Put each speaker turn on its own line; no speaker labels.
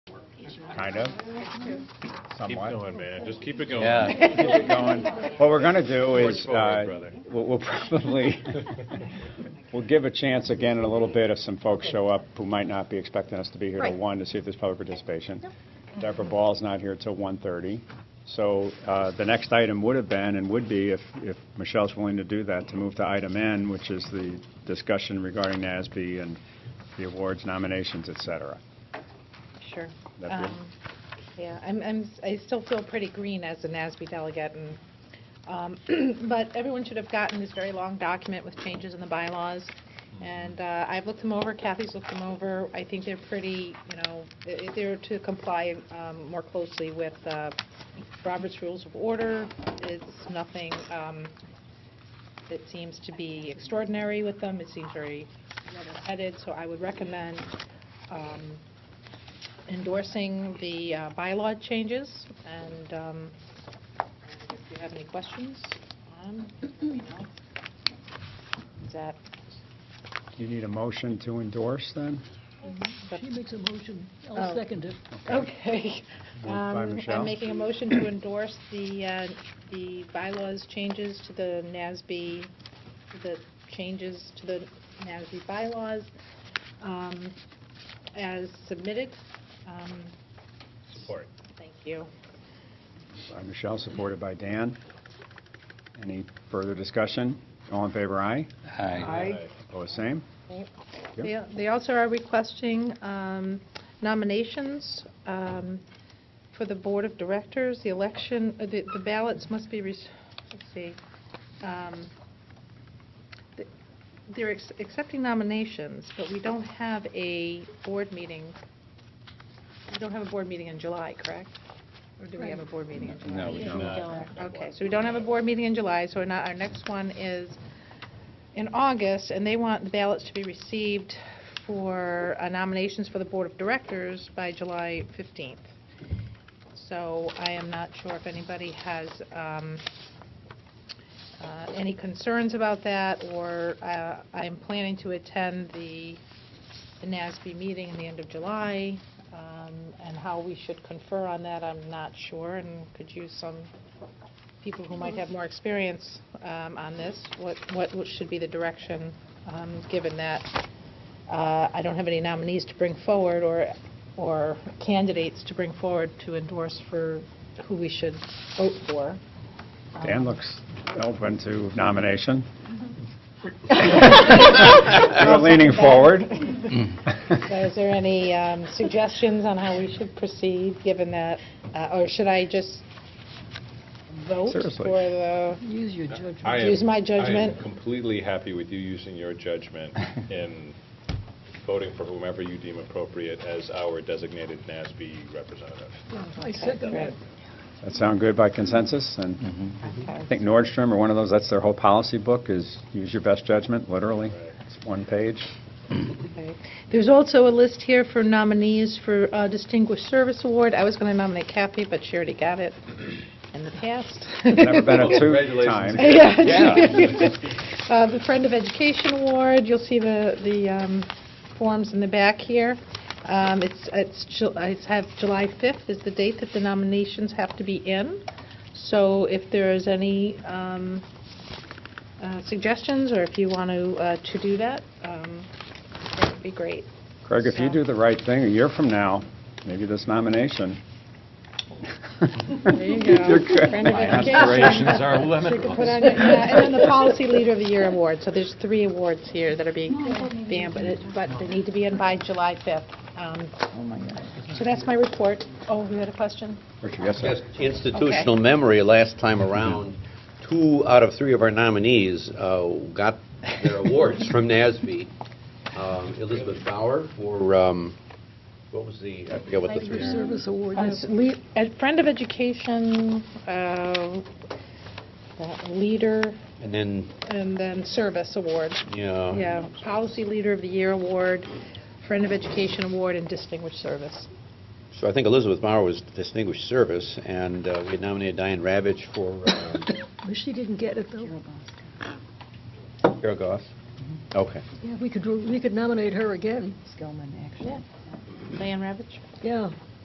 kind of, somewhat.
Keep going, man, just keep it going.
Yeah, keep it going. What we're going to do
Forge
is,
forward,
uh,
brother.
we'll we'll probably, we'll give a chance again in a little bit if some folks show up who might not be expecting us to be here till
Right.
one to see if there's public participation. Deborah Ball's not here till 1:30. So uh, the next item would have been, and would be, if if Michelle's willing to do that, to move to item N, which is the discussion regarding NASB and the awards, nominations, et cetera.
Sure.
That good?
Um, Yeah, I'm, I'm, I still feel pretty green as a NASB delegate, and, um, but everyone should have gotten this very long document with changes in the bylaws, and uh, I've looked them over, Kathy's looked them over, I think they're pretty, you know, i- i- they're to comply um, more closely with uh, Robert's Rules of Order, it's nothing um, that seems to be extraordinary with them, it seems very level-headed, so I would recommend um, endorsing the uh, bylaw changes, and um, if you have any questions on, you know, is that,
Do you need a motion to endorse, then?
that's-
She makes a motion,
Oh.
I'll second it.
okay.
Moved by
Um,
Michelle.
I'm making a motion to endorse the, uh, the bylaws changes to the NASB, the changes to the NASB bylaws um, as submitted. Um,
Support.
Thank you.
By Michelle, supported by Dan. Any further discussion? All in favor, aye.
Aye.
Opposed, same. Yep.
They they also are requesting um, nominations um, for the Board of Directors, the election, uh, the the ballots must be, rec- let's see, um, th- they're ex- accepting nominations, but we don't have a board meeting, we don't have a board meeting in July, correct? Or do we have a board meeting in July?
No, we don't.
Okay, so we don't have a board meeting in July, so we're not- our next one is in August, and they want the ballots to be received for uh, nominations for the Board of Directors by July 15th. So I am not sure if anybody has um, uh, any concerns about that, or uh, I'm planning to attend the the NASB meeting in the end of July, um, and how we should confer on that, I'm not sure, and could use some people who might have more experience um, on this, what, what what should be the direction, um, given that uh, I don't have any nominees to bring forward or, or candidates to bring forward to endorse for who we should vote for.
Dan looks open to nomination. You're leaning forward.
So is there any um, suggestions on how we should proceed, given that, uh, or should I just vote for
Seriously.
the?
Use your judgment.
I am-
Use my
I
judgment.
am completely happy with you using your judgment in voting for whomever you deem appropriate as our designated NASB representative.
I second
Great.
that.
That sound good by consensus? And I
Okay.
think Nordstrom or one of those, that's their whole policy book, is use your best judgment, literally. It's one page.
Okay. There's also a list here for nominees for uh, Distinguished Service Award. I was going to nominate Kathy, but she already got it in the past.
Never been a two-time.
Congratulations again.
Uh, The Friend of Education Award, you'll see the, the um, forms in the back here. Um, It's, it's, Ju- I have July 5th is the date that the nominations have to be in. So if there is any um, uh, suggestions, or if you want to, uh, to do that, um, that would be great.
Craig, if you do the right thing, a year from now, maybe this nomination.
There you go.
You're good.
Friend of
My
education.
aspirations are
So you
limitless.
can put on your- yeah, And then the Policy Leader of the Year award, so there's three awards here that are being, banned, but it- but they need to be in by July 5th. Um, So that's my report. Oh, you had a question?
Richard, yes, sir.
Yes, institutional memory last time around, two out of three of our nominees uh, got their awards from NASB. Um, Elizabeth Bauer for, um, what was the, I forget what the three are.
Service award.
Uh, it's lea- uh, Friend of Education, uh, uh, Leader,
And then,
and then Service Award.
yeah.
Yeah, Policy Leader of the Year award, Friend of Education award, and Distinguished Service.
So I think Elizabeth Bauer was distinguished service, and uh, we had nominated Diane Ravitch for uh,
Well, She didn't get it, though.
Carol Goff. Okay.
Yeah, we could, we could nominate her again.
Diane Ravitch?
Yeah,